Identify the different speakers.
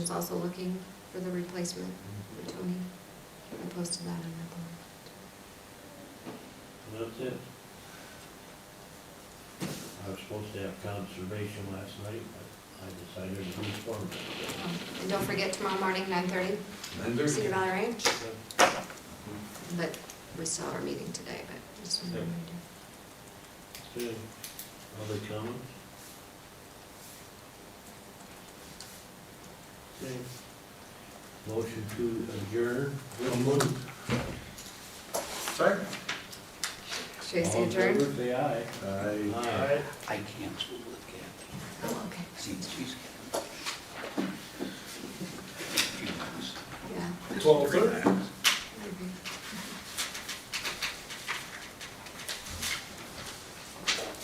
Speaker 1: is also looking for the replacement for Tony. I posted that on that
Speaker 2: That's it. I was supposed to have conservation last night, but I decided to do farming.
Speaker 1: board. Um, And don't forget tomorrow morning, nine thirty, Cedar Valley Ranch, but we still have our meeting today, but just wanted to remind you.
Speaker 2: Good. Other comments? Okay. Motion to adjourn.
Speaker 3: Second.
Speaker 1: Tracy
Speaker 2: All in
Speaker 1: adjourned?
Speaker 2: favor, say aye. Aye.
Speaker 4: I canceled with Kathy.
Speaker 1: Oh, okay,
Speaker 4: See, she's.
Speaker 1: yeah.
Speaker 3: Twelve thirty.